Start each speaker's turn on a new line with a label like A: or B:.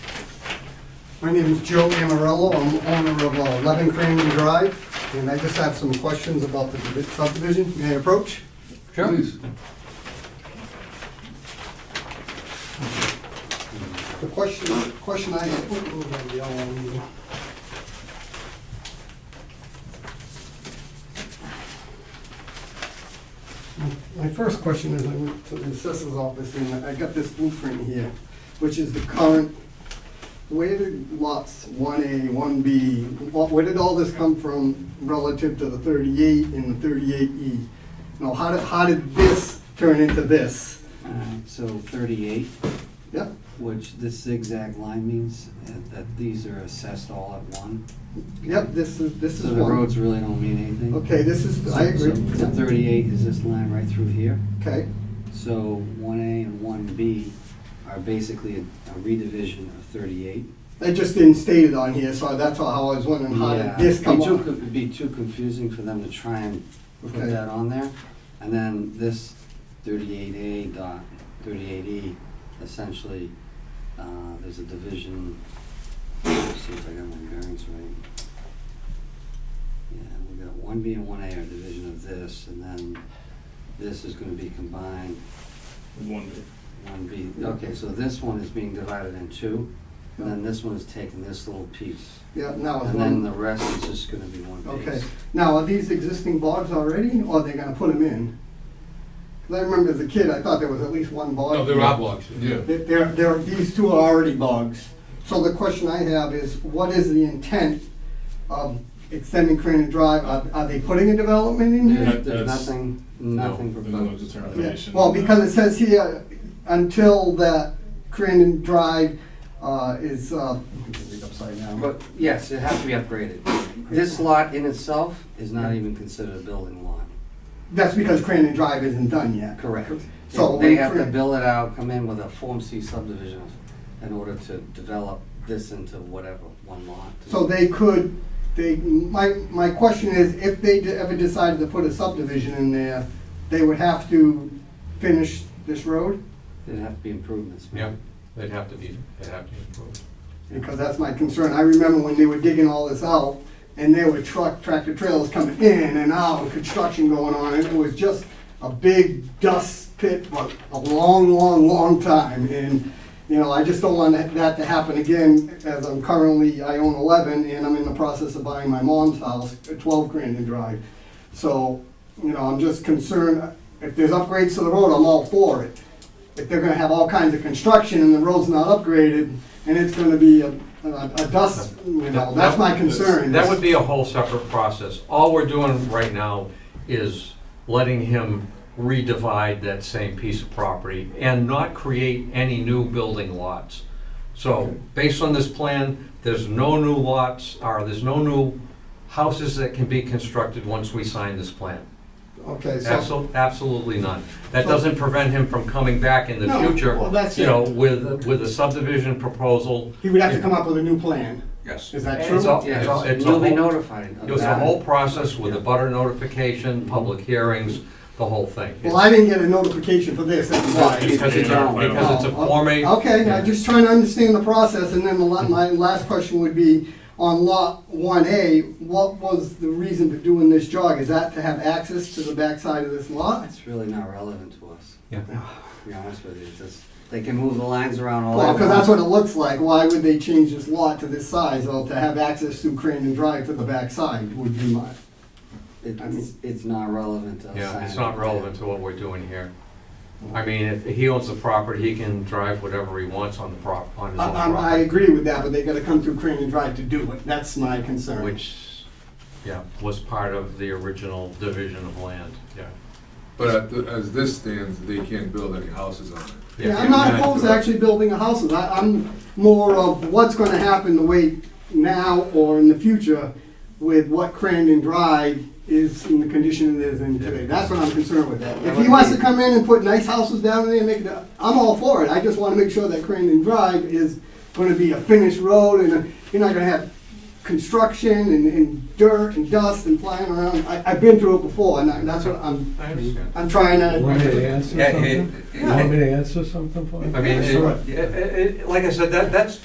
A: My name is Joe Amarello. I'm owner of uh, 11 Crandon Drive, and I just have some questions about the divi- subdivision. May I approach?
B: Sure.
A: The question, question I have, ooh, ooh, I'm yelling. My first question is, I went to the assessor's office and I got this blueprint here, which is the current, where did lots one A, one B, where did all this come from relative to the thirty-eight and the thirty-eight E? Now, how did, how did this turn into this?
C: Alright, so thirty-eight,
A: Yeah,
C: which this zigzag line means that- that these are assessed all at one.
A: yep, this is, this is
C: So
A: one.
C: the roads really don't mean anything.
A: Okay, this is, I agree.
C: So- So thirty-eight is this line right through here.
A: Okay,
C: So one A and one B are basically a a redivision of thirty-eight.
A: it just didn't state it on here, so that's all how I was wondering, how did
C: Yeah,
A: this come
C: it'd be too
A: up?
C: co- It'd be too confusing for them to try and put
A: Okay.
C: that on there. And then this thirty-eight A dot thirty-eight E, essentially, uh, there's a division. Let's see if I got my bearings right. Yeah, we got one B and one A are division of this, and then this is gonna be combined,
B: One day.
C: one B. Okay, so this one is being divided in two, and then this one is taking this little piece.
A: Yeah, now it's
C: And then the
A: one,
C: rest is just gonna be one piece.
A: okay. Now, are these existing bogs already, or are they gonna put them in? 'Cause I remember as a kid, I thought there was at least one bog.
B: No, there are blocks. Yeah.
A: There- There, there, these two are already bogs. So the question I have is, what is the intent of extending Crandon Drive? Are, are they putting a development in here?
B: Yeah.
C: There's there's
B: That's-
C: nothing, nothing
B: No, there's no
C: proposed.
A: Yeah,
B: determination.
A: Well, because it says here, until that Crandon Drive uh, is, uh, I can read upside down, but
C: But yes, it has to be upgraded. This lot in itself is not even considered a building lot.
A: that's because Crandon Drive isn't done yet.
C: Correct.
A: So
C: They
A: we
C: have to
A: create-
C: build it out, come in with a Form C subdivision in order to develop this into whatever, one lot.
A: So they could, they, my, my question is, if they d- ever decided to put a subdivision in there, they would have to finish this road?
C: There'd have to be improvements.
B: Yeah, they'd have to be, they'd have to be approved.
A: Because that's my concern. I remember when they were digging all this out, and there were truck, tractor trailers coming in and out, construction going on, and it was just a big dust pit for a long, long, long time. And, you know, I just don't want that- that to happen again, as I'm currently, I own eleven, and I'm in the process of buying my mom's house, at twelve Grandin Drive. So, you know, I'm just concerned, if there's upgrades to the road, I'm all for it. If they're gonna have all kinds of construction and the road's not upgraded, and it's gonna be a, a a dust, you know, that's my concern.
D: That would be a whole separate process. All we're doing right now is letting him redivide that same piece of property and not create any new building lots. So, based on this plan, there's no new lots, or there's no new houses that can be constructed once we sign this plan.
A: Okay, so,
D: Absol- Absolutely none. That
A: So-
D: doesn't prevent him from coming back in the
A: No,
D: future,
A: well, that's
D: you
A: it.
D: know, with, with a subdivision proposal.
A: he would have to come up with a new plan,
D: Yes.
A: is that
D: It's all-
A: true?
C: Yeah,
D: it's all-
C: so
D: it's a
C: you'll be
D: whole-
C: notified of
D: It was a
C: that.
D: whole process with the butter notification, public hearings, the whole thing.
A: Well, I didn't get a notification for this, that's why.
D: Because it's a, because it's a Form A.
A: Oh, Okay, I'm just trying to understand the process, and then the la- my last question would be, on lot one A, what was the reason for doing this jog? Is that to have access to the backside of this lot?
C: It's really not relevant to us,
D: Yeah.
C: to be honest with you. It's just, they can move the lines around all.
A: Well,
C: they
A: because
C: want.
A: that's what it looks like, why would they change this lot to this size, or to have access through Crandon Drive to the backside would be my, I
C: It's,
A: mean-
C: it's not relevant to us.
D: Yeah, it's
C: signing
D: not
C: it.
D: relevant to what we're doing here. I mean, if he owns the property, he can drive whatever he wants on the prop, on his
A: I,
D: own
A: I, I
D: property.
A: agree with that, but they gotta come through Crandon Drive to do it, that's my concern.
D: Which, yeah, was part of the original division of land, yeah.
E: But at the- as this stands, they can't build any houses on it.
A: Yeah, I'm not
E: Yeah.
A: opposed to actually building a house, I, I'm more of what's gonna happen the way now or in the future with what Crandon Drive is in the condition it is in today, that's what I'm concerned with. If he wants to come in and put nice houses down there and make it, a- I'm all for it, I just wanna make sure that Crandon Drive is gonna be a finished road and uh, you're not gonna have construction and, and dirt and dust and flying around, I, I've been through it before, and I- that's what I'm,
D: I understand.
A: I'm trying
F: Want me to
A: to.
F: answer
D: Yeah, it-
F: something? You Want me to answer something for you?
D: I mean,
A: Sure.
D: it- it- it- like I said, that, that's,